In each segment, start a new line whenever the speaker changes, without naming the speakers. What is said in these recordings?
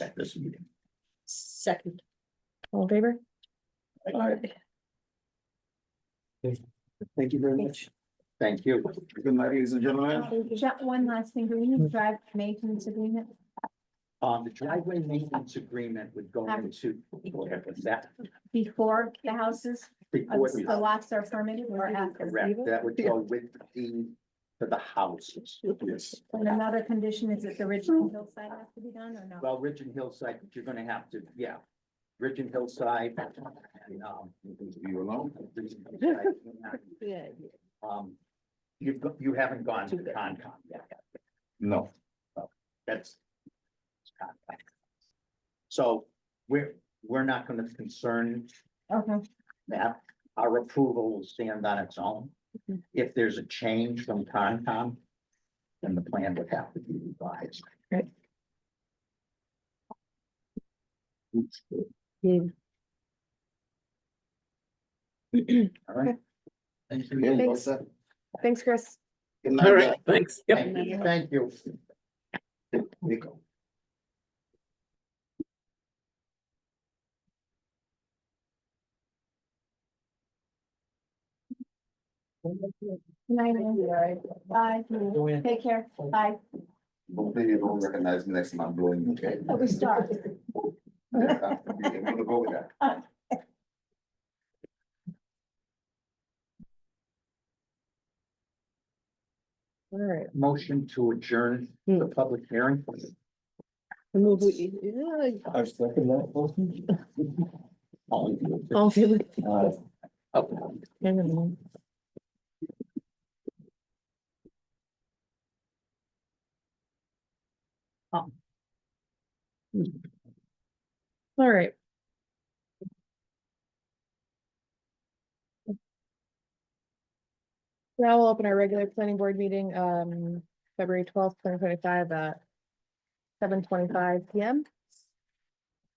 at this meeting.
Second. All in favor?
Thank you very much. Thank you. Good night, ladies and gentlemen.
Is that one last thing, do we need to drive maintenance agreement?
Um, the driveway maintenance agreement would go
Have-
into, what was that?
Before the houses, uh,
Before
the
the-
lots are permitted or after?
Correct, that would go with the, for the houses. Yes.
And another condition is that the original hillside has to be done or no?
Well, Ridge and Hillside, you're gonna have to, yeah, Ridge and Hillside and, um. You alone?
Yeah.
uh, Um, you've, go- you haven't gone to the Concom yet.
No,
That's. So we're, we're not gonna concern
Okay,
that. Our approval will stand on its own.
Mhm.
If there's a change from Concom, then the plan would have to be revised.
Right.
Oops, All right. Thank you.
Thanks. Thanks, Chris.
Good
All
night.
right, thanks. Thank you.
Nico.
Night, Andy. bye, take care, bye,
Hopefully you don't recognize me next time I'm blowing you. okay?
Oh, we start.
Yeah, I'm gonna go with that.
All right.
Motion to adjourn the public hearing.
I move we- yeah,
I second that.
All in favor?
I'll feel it.
Okay.
Never mind. Oh. All right. Now we'll open our regular planning board meeting, um, February twelfth, twenty twenty-five at seven twenty-five PM.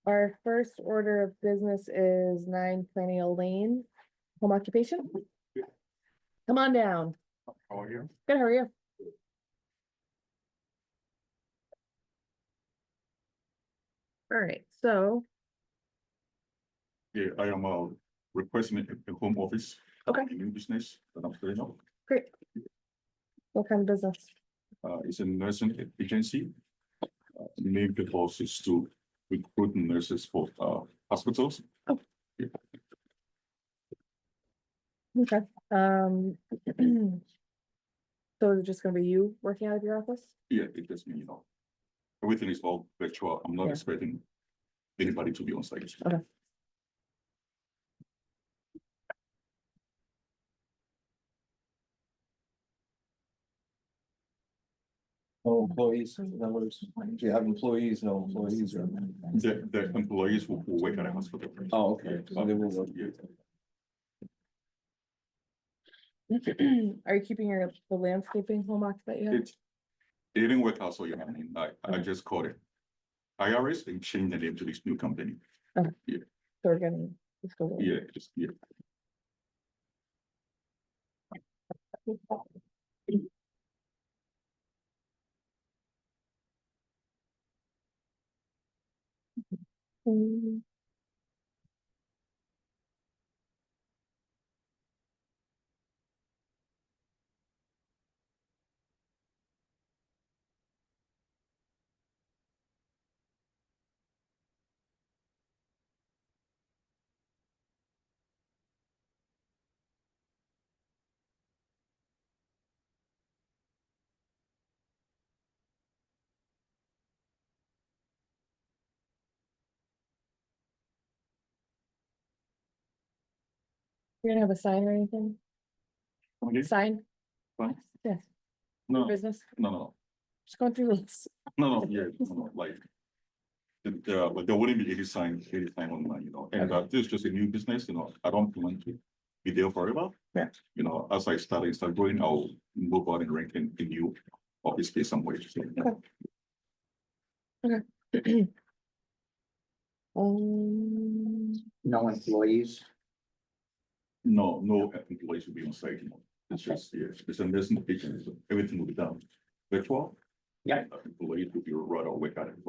Our first order of business is nine Planning Lane, home occupation. Come on down.
How are you?
Good, how are you? All right, so,
Yeah, I am uh requesting a a home office.
Okay.
A new business that I'm starting up.
great. What kind of business?
Uh, it's a nursing a- agency. Uh, Named the boss is to recruit nurses for uh hospitals.
Okay, um. So is it just gonna be you working out of your office?
Yeah, it just me, you know. Everything is all virtual. I'm not
Yeah.
expecting anybody to be on site.
Okay.
No employees, numbers, do you have employees, no employees or?
The the employees who who work at a hospital.
Oh, okay. So they will-
Yeah.
Are you keeping your the landscaping home occup that you have?
It, it didn't work out, so yeah, I mean, I, I
Okay.
just called it. IRS and changed the name to this new company.
So we're getting- let's go there.
Yeah, just, yeah.
Mm. You're gonna have a sign or anything?
Okay.
Sign?
Sign?
Yes,
No, no,
business,
no,
just going through this.
no, no, yeah, no, no, like. the- There, but there wouldn't be any sign, any sign online, you know, and uh, this is just a new business, you know, I don't want to be there forever.
Yeah.
You know, as I start, I start growing, I'll move out and rent in a new office space somewhere. so.
Um,
No employees.
No, no employees will be on site, you know, it's just, yeah, it's a nursing patient, everything will be done virtual.
Yeah.
Employees will be right away at it.